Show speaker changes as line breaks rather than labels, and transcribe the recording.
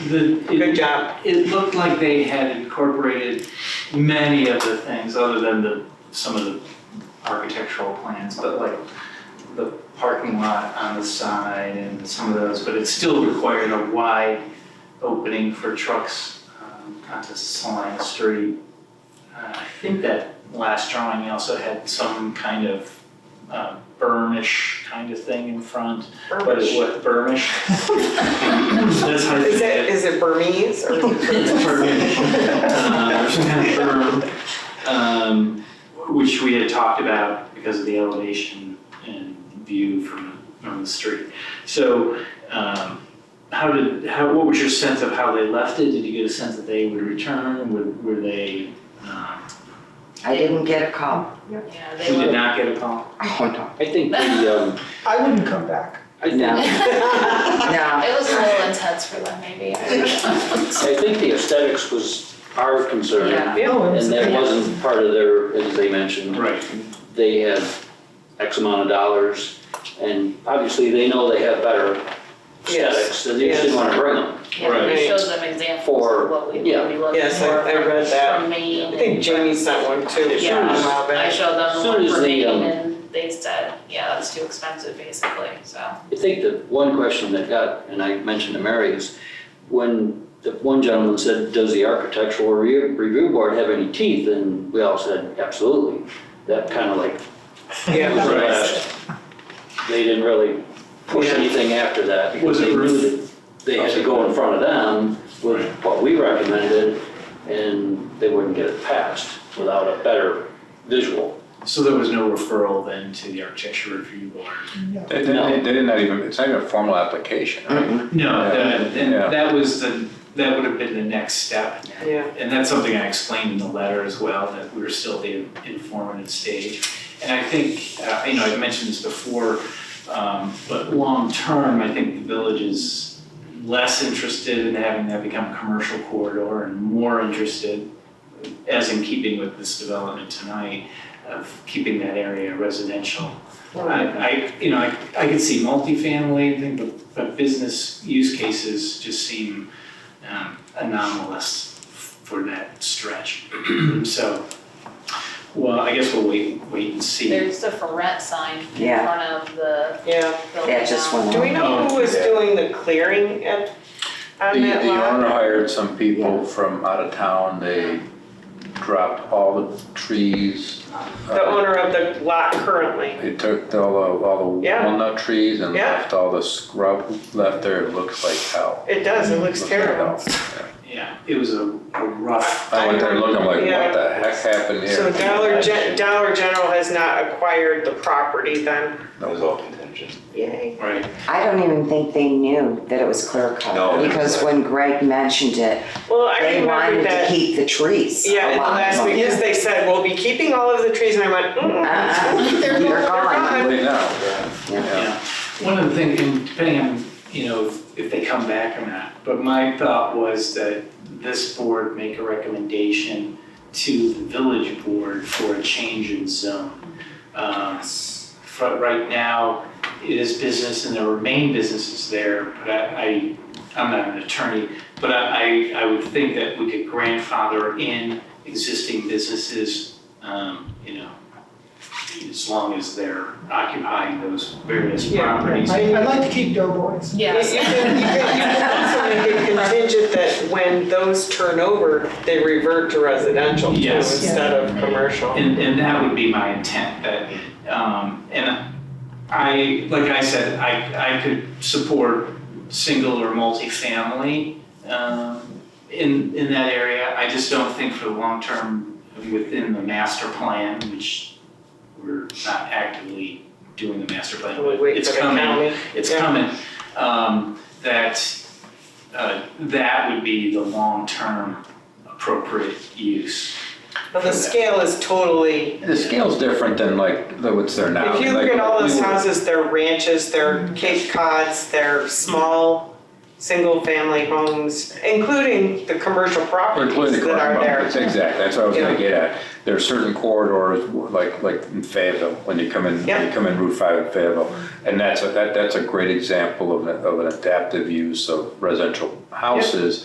the. it-
Good job.
It looked like they had incorporated many of the things, other than the, some of the architectural plans, but like the parking lot on the side and some of those, but it still required a wide opening for trucks, um, onto Salina Street. Uh, I think that last drawing also had some kind of, uh, burnish kind of thing in front. But it's what, Burmish? That's how
Is it,
it.
is it Burmese or?
It's Burmish. Uh, it's kind of berm, um, Which we had talked about because of the elevation and view from, from the street. So, um, how did, how, what was your sense of how they left it? Did you get a sense that they would return? Would, were they, um,
I didn't get a call.
Yeah,
we did not get a call?
Oh, no.
I think the, um,
I wouldn't come back.
I think,
No.
Burmese.
uh,
No,
It was a little intense for them, maybe. I don't know.
I think the aesthetics was our concern.
Yeah.
Oh,
And that wasn't part of their, as they mentioned,
Right.
they had X amount of dollars, and obviously they know they have better
Yes.
aesthetics, and they just didn't wanna bring them.
Yeah,
Right.
it shows them examples
For-
of what we would be
yeah.
looking for.
Yes, I- I read
from-
that.
From Maine.
I think Jamie sent one too, a
Yeah.
while
I
back.
showed them
Soon
the one
as
for
the,
Maine
um,
and they said, yeah, that's too expensive basically, so.
I think the one question that got, and I mentioned to Mary, is when the one gentleman said, does the architectural review review board have any teeth? And we all said, absolutely. That kind of like,
Yeah.
was the
Right.
last. They didn't really push
Yeah.
anything after that because
Was it
they knew
roof?
that they had to go in front of them with what we recommended and they wouldn't get it passed without a better visual.
So there was no referral then to the architecture review board?
They didn't,
No.
they did not even, it's not even a formal application,
Mm-hmm.
right?
No, that, and
Yeah.
that was the, that would have been the next step.
Yeah,
And that's something I explained in the letter as well, that we were still at the informative stage. And I think, uh, you know, I've mentioned this before, um, but long-term, I think the village is less interested in having that become a commercial corridor and more interested, as in keeping with this development tonight, of keeping that area residential. I, I, you know, I, I could see multifamily and things, but, but business use cases just seem um, anomalous for that stretch. So, well, I guess we'll wait, wait and see.
There's a for rent sign in
Yeah.
front of the
yeah.
building.
that just
now.
went
Do we
on.
know who was
Yeah.
doing the clearing at,
The,
on that
the
lot?
owner hired some people from out of town, they dropped all the trees. uh,
The owner of the lot currently.
They took all the, all the
Yeah.
walnut trees and
Yeah.
left all the scrub left there, it looks like hell.
It does, it looks
Looks like
terrible.
hell.
Yeah, it was a a rough,
I went there looking like,
Yeah.
what the heck happened here?
So Dollar Gen, Dollar General has not acquired the property then?
That was all contingent.
Yay.
right?
I don't even think they knew that it was clear
No,
cut,
they-
because when Greg mentioned it,
Well, I
they
remember
wanted to
that,
keep the trees
yeah, in the
alive.
last week, because they said, we'll be keeping all of the trees, and I went,
Uh-uh.
mm.
They're gone.
Right now,
Yeah.
Yeah. One of the things, and depending on, you know, if- if they come back or not, but my thought was that this board make a recommendation to the village board for a change in zone. Um, For, right now, it is business and there remain businesses there, but I, I, I'm not an attorney, but I, I I would think that we could grandfather in existing businesses, um, you know, as long as they're occupying those various
Yeah, yeah.
properties.
I, I'd like to keep Doughboys.
You you can, you can, you can also make it contingent that when those turn over, they revert to residential too,
Yes.
instead of commercial.
And, and that would be my intent, that, um, and I, like I said, I, I could support single or multifamily, um, in, in that area. I just don't think for the long term, within the master plan, which we're not actively doing the master plan,
We
but
wait
it's
for the
coming
county.
it's
Yeah.
coming, um, that, uh, that would be the long-term appropriate use.
But the scale is totally,
the scale's different than like, the- what's there now.
if you look
Like,
at all those
we were-
houses, they're ranches, they're Cape Cods, they're small, single-family homes, including the commercial
Including
properties
the
that are
corner
there.
markets, exactly, that's what I was
Yeah.
gonna get at. There are certain corridors, like, like in Fayetteville, when you come in, when you
Yeah.
come in Route five in Fayetteville. And that's, a that, that's a great example of, an- of an adaptive use of residential houses